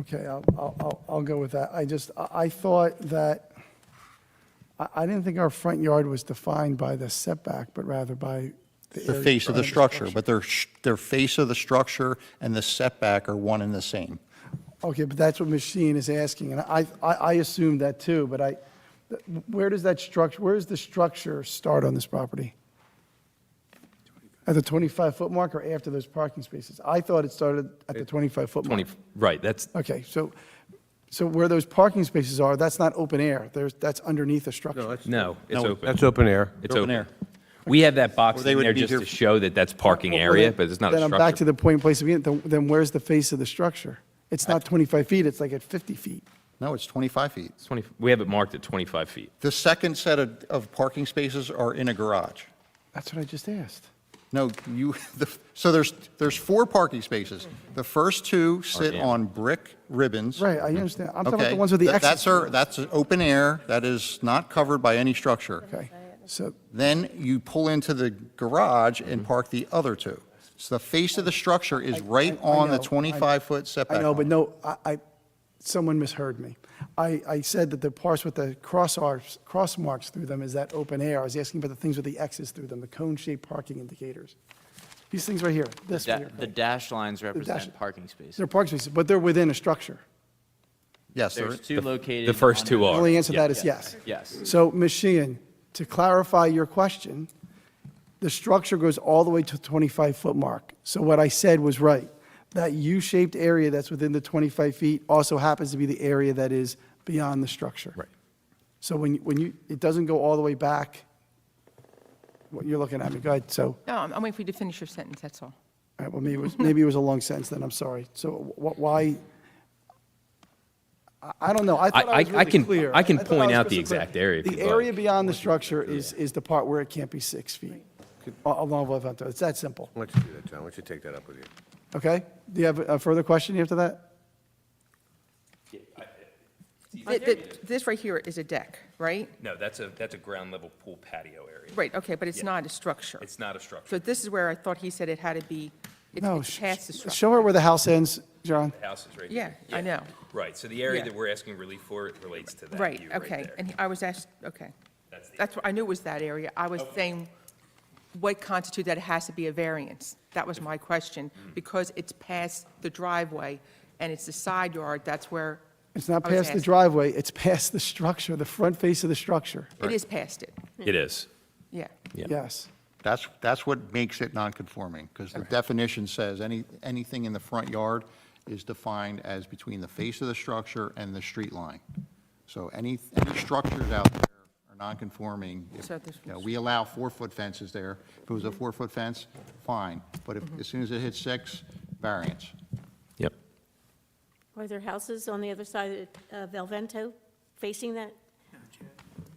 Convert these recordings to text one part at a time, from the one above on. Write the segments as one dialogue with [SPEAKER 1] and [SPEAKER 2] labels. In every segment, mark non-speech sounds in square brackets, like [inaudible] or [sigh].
[SPEAKER 1] Okay, I'll, I'll- I'll, I'll go with that. I just, I I thought that, I, I didn't think our front yard was defined by the setback, but rather by the
[SPEAKER 2] The
[SPEAKER 1] area
[SPEAKER 2] face of the
[SPEAKER 1] around
[SPEAKER 2] structure, but their, sh- their face of the structure and the setback are one and the same.
[SPEAKER 1] Okay, but that's what Machine is asking, and I, I, I assumed that too, but I, where does that structure, where does the structure start on this property? At the 25-foot mark or after those parking spaces? I thought it started at the 25-foot mark.
[SPEAKER 3] 20, right, that's,
[SPEAKER 1] Okay, so, so where those parking spaces are, that's not open air, there's, that's underneath a
[SPEAKER 4] No,
[SPEAKER 1] structure.
[SPEAKER 4] that's,
[SPEAKER 3] no, it's
[SPEAKER 2] No,
[SPEAKER 3] open.
[SPEAKER 4] that's open air.
[SPEAKER 3] It's
[SPEAKER 2] open air.
[SPEAKER 3] open. We have that box
[SPEAKER 2] Or they
[SPEAKER 3] in
[SPEAKER 2] would
[SPEAKER 3] there
[SPEAKER 2] be
[SPEAKER 3] just
[SPEAKER 2] here-
[SPEAKER 3] to show that that's parking area, but it's not a
[SPEAKER 1] Then I'm back to
[SPEAKER 3] structure.
[SPEAKER 1] the point place again, then then where's the face of the structure? It's not 25 feet, it's like at 50 feet.
[SPEAKER 2] No, it's 25 feet.
[SPEAKER 3] It's 20 We have it marked at 25 feet.
[SPEAKER 2] The second set of, of parking spaces are in a garage.
[SPEAKER 1] That's what I just asked.
[SPEAKER 2] No, you, [laughs] the- so there's, there's four parking spaces. The first two sit
[SPEAKER 3] in.
[SPEAKER 2] on brick ribbons.
[SPEAKER 1] Right, I understand, I'm talking about
[SPEAKER 2] Okay?
[SPEAKER 1] the ones with the
[SPEAKER 2] That-
[SPEAKER 1] exits.
[SPEAKER 2] That's, our- that's open air, that is not covered by any structure.
[SPEAKER 1] Okay, so,
[SPEAKER 2] Then you pull into the garage and park the other two. So the face of the structure is right
[SPEAKER 1] I
[SPEAKER 2] on the
[SPEAKER 1] know, I-
[SPEAKER 2] 25-foot setback.
[SPEAKER 1] I know, but
[SPEAKER 2] line.
[SPEAKER 1] no, I, I, someone misheard me. I, I said that the parts with the cross arcs, cross marks through them is that open air. I was asking about the things with the X's through them, the cone-shaped parking indicators. These things right here, this
[SPEAKER 5] Da-
[SPEAKER 1] right here.
[SPEAKER 5] The dashed lines
[SPEAKER 1] dash-
[SPEAKER 5] represent parking spaces.
[SPEAKER 1] They're parking spaces, but they're within a structure.
[SPEAKER 2] Yes, there
[SPEAKER 5] There's two located.
[SPEAKER 3] The first
[SPEAKER 5] on
[SPEAKER 3] two
[SPEAKER 5] the-
[SPEAKER 1] The
[SPEAKER 3] are.
[SPEAKER 1] only answer to
[SPEAKER 3] yeah.
[SPEAKER 1] that is yes.
[SPEAKER 5] Yes.
[SPEAKER 1] So, Ms. Sheehan, to clarify your question, the structure goes all the way to 25-foot mark. So what I said was right. That U-shaped area that's within the 25 feet also happens to be the area that is beyond the structure.
[SPEAKER 3] Right.
[SPEAKER 1] So when, you- when you, it doesn't go all the way back, what you're looking at me, go ahead, so,
[SPEAKER 6] No, I'm I'm waiting for you to finish your sentence, that's all.
[SPEAKER 1] all right, well, maybe it was, maybe it was a long sentence then, I'm sorry. So wh- why, I- I don't know, I thought
[SPEAKER 3] I-
[SPEAKER 1] I was
[SPEAKER 3] I
[SPEAKER 1] really
[SPEAKER 3] can-
[SPEAKER 1] clear.
[SPEAKER 3] I can
[SPEAKER 1] thought
[SPEAKER 3] point
[SPEAKER 1] was
[SPEAKER 3] out the
[SPEAKER 1] crystal clear.
[SPEAKER 3] exact area if
[SPEAKER 1] The
[SPEAKER 3] you'd
[SPEAKER 1] area
[SPEAKER 3] like.
[SPEAKER 1] beyond the structure is, is the part where it can't be six feet, a- along with, it's that simple,
[SPEAKER 4] Why don't you do that, John? Why don't you take that up with you?
[SPEAKER 1] okay? Do you have a further question after that?
[SPEAKER 6] Th- th- This right here is a deck, right?
[SPEAKER 3] No, that's a, that's a ground level pool patio area.
[SPEAKER 6] Right, okay, but it's
[SPEAKER 3] Yeah.
[SPEAKER 6] not a structure.
[SPEAKER 3] It's not a structure.
[SPEAKER 6] So this is where I thought he said it had to be, it's
[SPEAKER 1] No,
[SPEAKER 6] it's
[SPEAKER 1] sh-
[SPEAKER 6] past the
[SPEAKER 1] sh-
[SPEAKER 6] structure.
[SPEAKER 1] show her where the house ends, John.
[SPEAKER 3] House is right
[SPEAKER 6] Yeah,
[SPEAKER 3] here.
[SPEAKER 6] I know.
[SPEAKER 3] Right, so the area
[SPEAKER 6] Yeah.
[SPEAKER 3] that we're asking relief for relates to that
[SPEAKER 6] Right,
[SPEAKER 3] view right
[SPEAKER 6] okay,
[SPEAKER 3] there.
[SPEAKER 6] and he- I was asked, okay.
[SPEAKER 3] That's the-
[SPEAKER 6] That's, what I knew it was that area. I was saying, what constitutes that it has to be a variance? That was my question,
[SPEAKER 3] Mm.
[SPEAKER 6] because it's past the driveway, and it's the side yard, that's where.
[SPEAKER 1] It's not
[SPEAKER 6] I was
[SPEAKER 1] past the
[SPEAKER 6] asking.
[SPEAKER 1] driveway, it's past the structure, the front face of the structure,
[SPEAKER 6] It is past it,
[SPEAKER 3] It is.
[SPEAKER 6] yeah.
[SPEAKER 3] Yeah.
[SPEAKER 1] yes.
[SPEAKER 2] That's, that's what makes it non-conforming, because the definition says any, anything in the front yard is defined as between the face of the structure and the street line. So any, any structures out there are non-conforming. If-
[SPEAKER 6] So this
[SPEAKER 2] you know, We allow four-foot fences there. If it was a four-foot fence, fine, but if,
[SPEAKER 6] Mm-hmm.
[SPEAKER 2] as soon as it hits six, variance.
[SPEAKER 3] Yep.
[SPEAKER 7] Are there houses on the other side of El Vento facing that?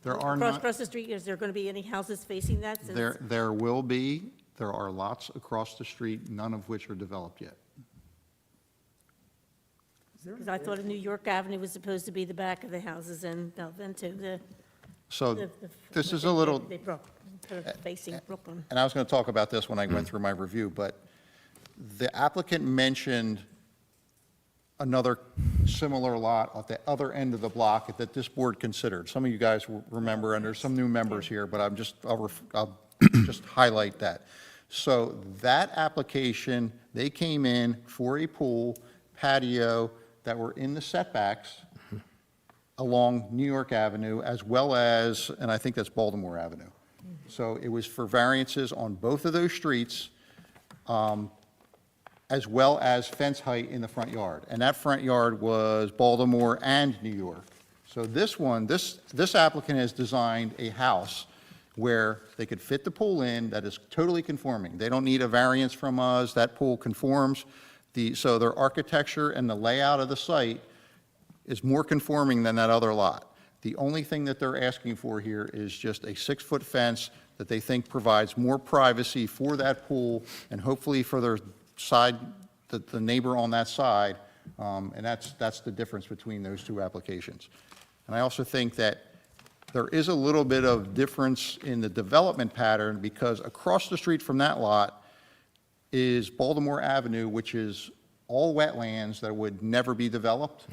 [SPEAKER 2] There are
[SPEAKER 7] Across-
[SPEAKER 2] not,
[SPEAKER 7] Across the street, is there going to be any houses facing that? since-
[SPEAKER 2] there, there will be, there are lots across the street, none of which are developed yet.
[SPEAKER 7] Because I thought of New York Avenue was supposed to be the back of the houses and El Vento, the.
[SPEAKER 2] So
[SPEAKER 7] the- the-
[SPEAKER 2] this
[SPEAKER 7] what
[SPEAKER 2] is
[SPEAKER 7] they-
[SPEAKER 2] a little, Uh,
[SPEAKER 7] They brought, sort of facing Brooklyn.
[SPEAKER 2] and I was going to talk about this when I went through my review, but the applicant mentioned another similar lot at the other end of the block that this board considered. Some of you guys will remember, and there's some new members here, but I'm just, I'll, ref- I'll just highlight that. So that application, they came in for a pool patio that were in the setbacks along New York Avenue as well as, and I think that's Baltimore Avenue. So it was for variances on both of those streets, um, as well as fence height in the front yard. And that front yard was Baltimore and New York. So this one, this, this applicant has designed a house where they could fit the pool in that is totally conforming. They don't need a variance from us, that pool conforms. The, so their architecture and the layout of the site is more conforming than that other lot. The only thing that they're asking for here is just a six-foot fence that they think provides more privacy for that pool and hopefully for their side, the, the neighbor on that side. Um, And that's, that's the difference between those two applications. And I also think that there is a little bit of difference in the development pattern because across the street from that lot is Baltimore Avenue, which is all wetlands that would never be developed.